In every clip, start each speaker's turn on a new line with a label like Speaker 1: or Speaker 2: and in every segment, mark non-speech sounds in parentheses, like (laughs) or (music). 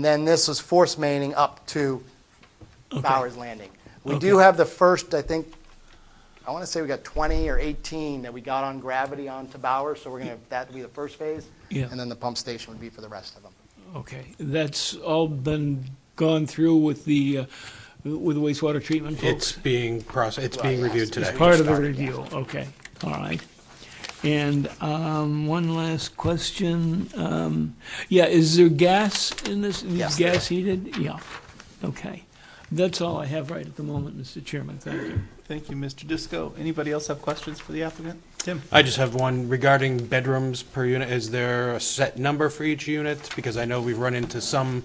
Speaker 1: And then this is force maining up to Bowers Landing. We do have the first, I think, I want to say we got 20 or 18 that we got on gravity onto Bowers, so we're going to, that would be the first phase.
Speaker 2: Yeah.
Speaker 1: And then the pump station would be for the rest of them.
Speaker 2: Okay, that's all been gone through with the, uh, with the wastewater treatment
Speaker 3: It's
Speaker 2: folks?
Speaker 3: being processed, it's being reviewed today.
Speaker 2: Part of the
Speaker 1: started, yeah.
Speaker 2: review, okay, all right. And um, one last question. um, Yeah, is there gas in this? is
Speaker 1: Yes, there
Speaker 2: Gas heated? Yeah, okay. That's all I have right at the moment, Mr. Chairman, thank you.
Speaker 4: Thank you, Mr. Disco. Anybody else have questions for the applicant? Tim?
Speaker 3: I just have one regarding bedrooms per unit. Is there a set number for each unit? Because I know we've run into some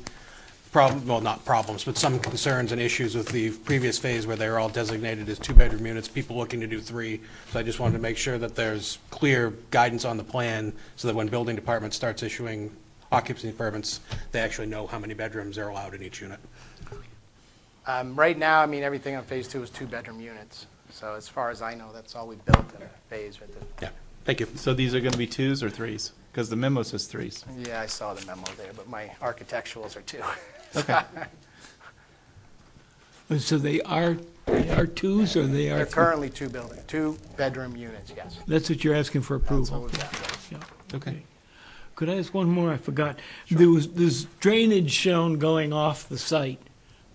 Speaker 3: problem, well, not problems, but some concerns and issues with the previous phase where they were all designated as two-bedroom units, people looking to do three. So I just wanted to make sure that there's clear guidance on the plan so that when building department starts issuing occupancy permits, they actually know how many bedrooms are allowed in each unit.
Speaker 1: Um, Right now, I mean, everything on Phase Two is two-bedroom units. So as far as I know, that's all we built in Phase. at the-
Speaker 3: Yeah, thank you.
Speaker 4: So these are going to be twos or threes? Because the memo says threes.
Speaker 1: Yeah, I saw the memo there, but my architecturals are two.
Speaker 3: (laughs)
Speaker 4: Okay.
Speaker 2: And Uh, So they are, they are twos or
Speaker 1: (laughs)
Speaker 2: they
Speaker 1: They're
Speaker 2: are?
Speaker 1: currently two building, two-bedroom units, yes.
Speaker 2: That's what you're asking for
Speaker 1: That's
Speaker 2: approval?
Speaker 1: what we've got.
Speaker 2: Yeah.
Speaker 4: Okay.
Speaker 2: Could I ask one more? I forgot. There was, there's drainage shown going off the site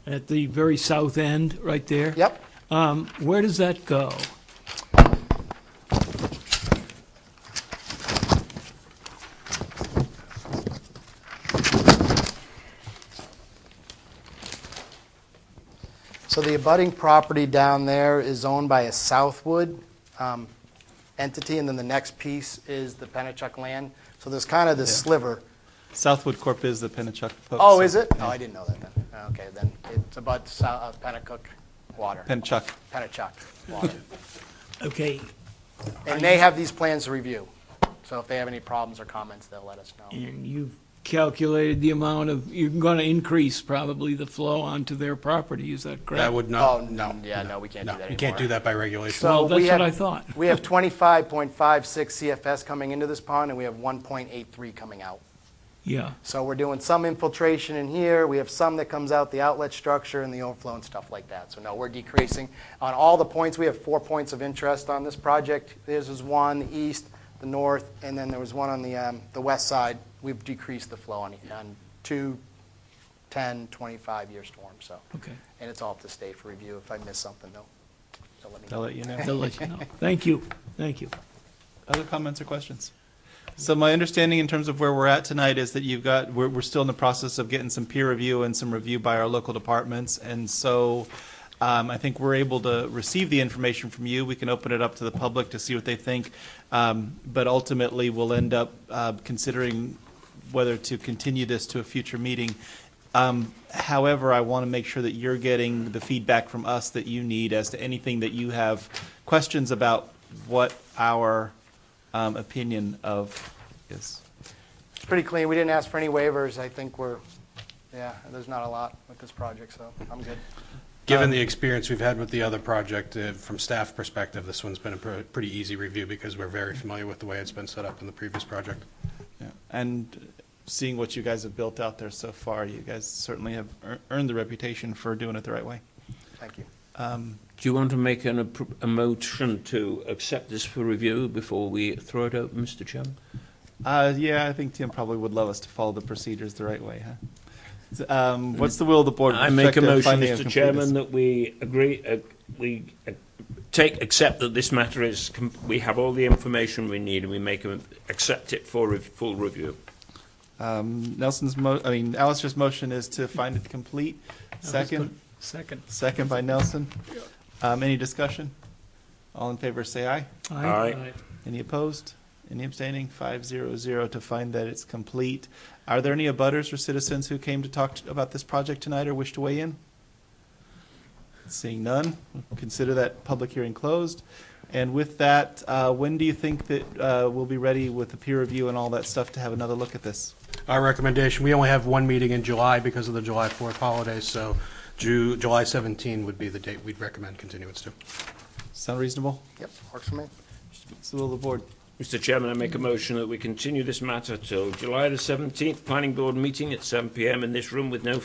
Speaker 2: at the very south end, right there.
Speaker 1: Yep.
Speaker 2: Um, Where does that go?
Speaker 1: So the abutting property down there is owned by a Southwood um, entity, and then the next piece is the Pennachuck land. So there's kind of this
Speaker 4: Yeah.
Speaker 1: sliver.
Speaker 4: Southwood Corp is the Pennachuck. folks.
Speaker 1: Oh, is it? Oh, I didn't know that then. Okay, then it's about Sou- uh, Pennachuck water.
Speaker 4: Pennachuck.
Speaker 1: Pennachuck water.
Speaker 2: Okay,
Speaker 1: And they have these plans to review. So if they have any problems or comments, they'll let us know.
Speaker 2: and you've calculated the amount of, you're going to increase probably the flow onto their property, is that correct?
Speaker 3: That would
Speaker 1: Oh,
Speaker 3: not,
Speaker 1: no,
Speaker 3: no.
Speaker 1: yeah, no, we can't do
Speaker 3: No,
Speaker 1: that anymore.
Speaker 3: you can't do that by regulation.
Speaker 1: So
Speaker 2: Well,
Speaker 1: we
Speaker 2: that's what
Speaker 1: have-
Speaker 2: I thought.
Speaker 1: We have 25.56 CFS coming into this pond, and we have 1.83 coming out.
Speaker 2: Yeah,
Speaker 1: So we're doing some infiltration in here, we have some that comes out the outlet structure and the overflow and stuff like that. So no, we're decreasing. On all the points, we have four points of interest on this project. This is one, the east, the north, and then there was one on the, um, the west side. We've decreased the flow on, on two, 10, 25-year storms, so.
Speaker 2: okay.
Speaker 1: And it's all up to state for review. If I miss something, though, they'll let me
Speaker 4: I'll
Speaker 1: know.
Speaker 4: let you know.
Speaker 2: They'll let
Speaker 1: (laughs)
Speaker 2: you know. Thank you, thank you.
Speaker 4: Other comments or questions? So my understanding in terms of where we're at tonight is that you've got, we're, we're still in the process of getting some peer review and some review by our local departments. And so um, I think we're able to receive the information from you. We can open it up to the public to see what they think. Um, But ultimately, we'll end up uh, considering whether to continue this to a future meeting. Um, However, I want to make sure that you're getting the feedback from us that you need as to anything that you have questions about what our um, opinion of is.
Speaker 1: It's pretty clean. We didn't ask for any waivers. I think we're, yeah, there's not a lot with this project, so I'm good.
Speaker 3: Given the experience we've had with the other project, uh, from staff perspective, this one's been a pr- pretty easy review because we're very familiar with the way it's been set up in the previous project.
Speaker 4: Yeah. And seeing what you guys have built out there so far, you guys certainly have ear- earned the reputation for doing it the right way.
Speaker 1: Thank you.
Speaker 5: Do you want to make an, appro- a motion to accept this for review before we throw it open, Mr Chairman?
Speaker 4: Uh, yeah, I think Tim probably would love us to follow the procedures the right way, huh? So, Um, what's the will of the board? with
Speaker 5: I make a
Speaker 4: respect to
Speaker 5: motion,
Speaker 4: finding of
Speaker 5: Mr
Speaker 4: completeness?
Speaker 5: Chairman, that we agree, uh, we uh, take, accept that this matter is, com- we have all the information we need and we make, a- accept it for rev- full review.
Speaker 4: Um, Nelson's mo, I mean, Alistair's motion is to find it complete. Second,
Speaker 2: Second.
Speaker 4: second by Nelson. Um, any discussion? All in favor, say aye.
Speaker 5: Aye.
Speaker 4: Any opposed? Any abstaining? Five zero zero to find that it's complete. Are there any abutters or citizens who came to talk t- about this project tonight or wish to weigh in? Seeing none, consider that public hearing closed. And with that, uh, when do you think that uh, we'll be ready with the peer review and all that stuff to have another look at this?
Speaker 3: Our recommendation, we only have one meeting in July because of the July 4th holiday, so Ju- July 17 would be the date we'd recommend continuance to.
Speaker 4: Sound reasonable?
Speaker 1: Yep, works for me.
Speaker 4: It's the will of the board.
Speaker 5: Mr. Chairman, I make a motion that we continue this matter till July the 17th, Planning Board meeting at 7 PM in this room with no